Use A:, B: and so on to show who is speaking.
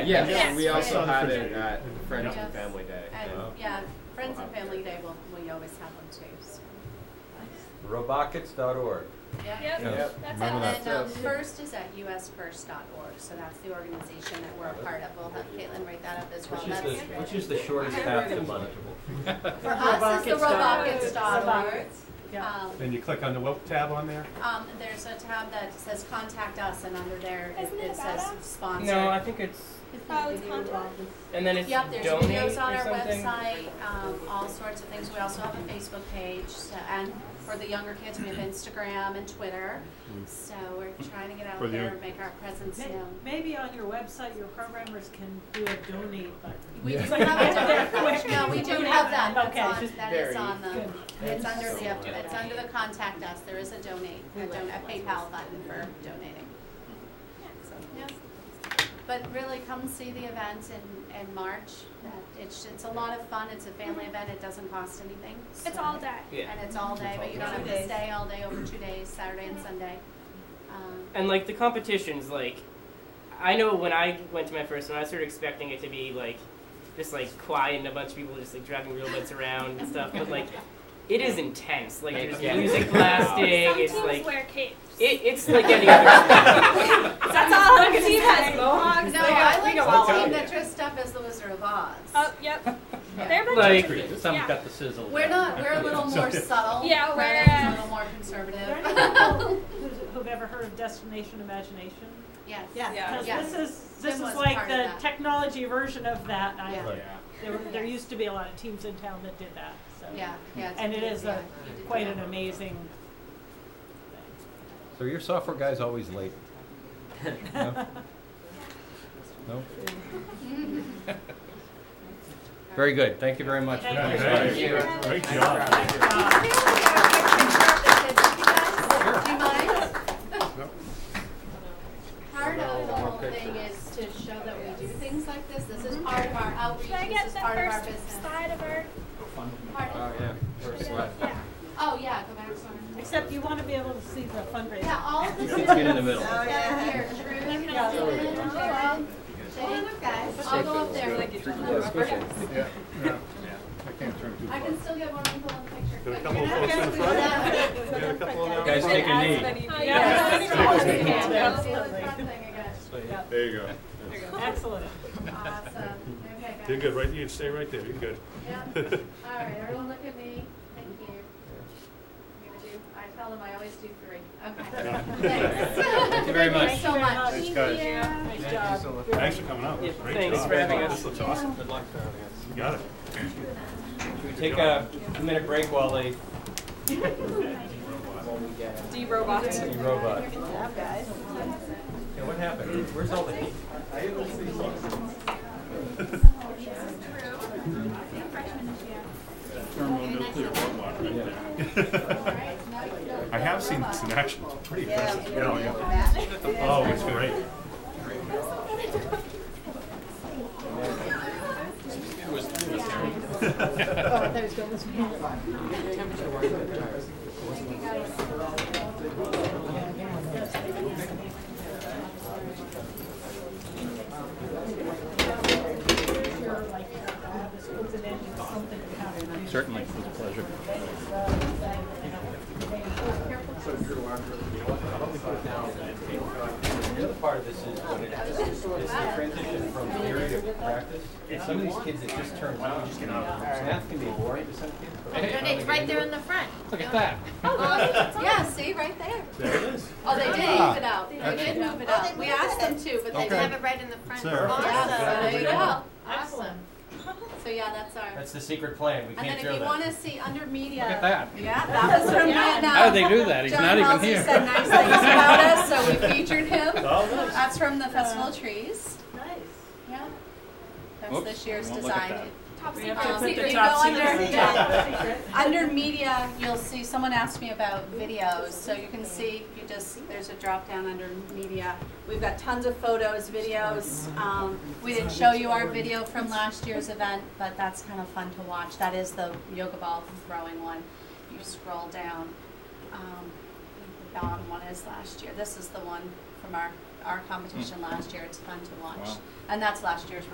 A: Yes,
B: Yes.
A: we also
B: Yes.
A: had it at Friends
B: Yes.
A: and Family Day.
B: And,
C: Oh.
B: yeah, Friends and Family Day, will we always have them too, so,
C: Robockets.org.
B: yeah.
C: Yeah.
D: Yep, that's
C: Remember
D: how.
C: that.
B: And, um,
A: Yes.
B: FIRST is at usfirst.org, so that's the organization that we're a part of, we'll have Caitlin write that up as well.
C: Which is the,
B: That's-
C: which is the shortest path to monetable.
B: For us, it's the
D: Robockets dot org.
B: robockets.org.
D: Yeah.
B: Um,
E: Then you click on the web tab on there.
B: Um, there's a tab that says contact us and under there it,
D: Isn't it
B: it
D: about
B: says
D: us?
B: sponsor.
F: No, I think it's
D: Oh, it's contact?
F: and then it's
B: Yep, there's
F: donate
B: videos on
F: or
B: our
F: something.
B: website, um, all sorts of things. We also have a Facebook page, so, and for the younger kids, we have Instagram and Twitter. So we're trying to get out
E: For the
B: there
E: young-
B: and make our presence
G: May-
B: known.
G: Maybe on your website, your programmers can do a donate button.
B: We do
C: Yeah.
B: have a donate, no, we do have that,
G: Okay,
B: that's on,
G: just
B: that is
A: very
B: on the,
G: good.
B: it's under the, it's under the contact us, there is a donate, a don- a PayPal button for donating. So, yeah. But really, come see the event in, in March, That- it's, it's a lot of fun, it's a family event, it doesn't cost anything.
D: It's
B: so-
D: all day.
F: Yeah.
B: And it's all day, but you don't have
G: Two
B: to
G: days.
B: stay all day over two days, Saturday and Sunday. Um,
F: And like the competitions, like I know when I went to my first one, I was sort of expecting it to be like just like quiet and a bunch of people just like driving real bits around and stuff, but like it is intense. Like there's
A: Yeah.
F: music blasting.
D: Some
F: it's
D: teams
F: like
D: wear capes.
F: it, it's like any other. sport.
D: That's all. One team has mohawks.
B: No,
D: they got-
B: I
D: we
B: like
D: go
B: the
D: all out.
B: team that dressed up as the Wizard of Oz.
D: Oh, yep.
B: Yeah.
D: They're a bunch
F: Like-
D: of teams,
H: Some
D: yeah.
H: got the sizzle.
B: We're not. We're a little more subtle.
D: Yeah,
B: Brennan's
D: we're-
B: a little more
G: Are there
B: conservative.
G: any people who's- who've ever heard of Destination Imagination?
B: yes.
I: Yeah.
G: Because
B: Yeah.
G: this is, this
B: Swim was
G: is like
B: part of
G: the
B: that.
G: technology version of that. I-
B: Yeah.
C: Right.
G: There, were- there used to be a lot of teams in town that did that, so.
B: Yeah. Yeah. it's-
G: And it is
B: yeah,
G: a,
B: you did
G: quite
B: that.
G: an amazing
C: So your software guy's always late. No? No? Very good. Thank you very much. for
G: Thank
C: coming.
G: you. Thank
A: you.
E: Great job.
B: Here,
G: thing.
B: we are. I can grab the kids. You guys, do you mind? Part of the whole thing is to show that we do things like this. This is part of our outreach.
D: Should I
B: This
D: get
B: is
D: the
B: part of our
D: first
B: business.
D: slide of our?
B: Pardon?
A: Oh, yeah. First one.
D: Yeah.
B: Oh, yeah, go back one.
G: Except you want to be able to see the fundraiser.
B: Yeah, all of this is.
C: Get in the middle.
B: Down here, Drew, Dylan, Cheryl, Jake, guys, I'll go up there.
E: I can't turn too
B: I can still get one people in the picture.
E: Got a couple
B: Quick,
E: of
B: you're
E: folks
B: not-
E: in front.
B: Yeah.
E: a couple of
C: Guys, take a knee.
D: Oh,
G: Yeah.
D: yeah.
B: Let's do the front thing again.
E: There you go.
G: Excellent.
B: Awesome. Okay, guys.
E: You're good, right? You stay right there. You're good.
B: Yeah. All right, everyone look at me. Thank you. I'm gonna do, I tell them I always do three. Okay. Thanks.
C: Thank you very much.
B: Thanks so much.
E: Thanks, guys.
G: Nice job.
E: Thanks for coming out.
F: Yeah,
E: Great
F: thanks
E: job.
F: for having us.
E: This looks awesome.
A: Good luck to our audience.
E: You got it.
C: Should we take a minute break while they
I: D robots.
C: see robot? Yeah, what happened? Where's all the heat?
E: Thermonuclear robot right
B: All
E: there.
B: right, now you
E: I have seen this in action. It's pretty impressive. Yeah, yeah. Oh, it's great.
G: uh,
H: Certainly, it was a pleasure.
G: uh,
C: The other part of this is what it is, is the transition from theory to practice. And some of these kids, it just turns on. Math can be boring to some kids, but
D: It's right there in the front.
H: Look at that.
B: Yeah, see, right there.
E: There it is.
B: Oh, they did
H: Ah.
B: move it out. Oh, They did move it out. We asked them to, but they
E: Okay.
B: have it right in the front.
E: It's there.
B: Yeah, so there you go.
G: Excellent.
B: So, yeah, that's our.
C: that's the secret plan. We
B: And
C: can't
B: then if
C: show
B: you
C: that.
B: want to see under media.
H: Look at that.
B: Yeah, that was from Vietnam.
H: How'd they do that? He's
B: John
H: not even
B: Halsey
H: here.
B: said nice things about us, so we featured him.
E: Oh, nice.
B: That's from the Festival of Trees.
G: Nice.
B: Yeah. That's
H: Oops,
B: this year's
H: won't look at
B: design.
H: that.
D: Top
G: We
D: secret.
G: have to
B: Um,
G: put
B: if
G: the
B: you
G: top
B: go under,
G: secret.
B: yeah, under media, you'll see. Someone asked me about videos, so you can see. You just there's a drop down under media. We've got tons of photos, videos. Um, we didn't show you our video from last year's event, but that's kind of fun to watch. That is the yoga ball throwing one. You scroll down. Um, I think the bottom one is last year. This is the one from our our competition last year. It's fun to watch.
H: Wow.
B: And that's last year's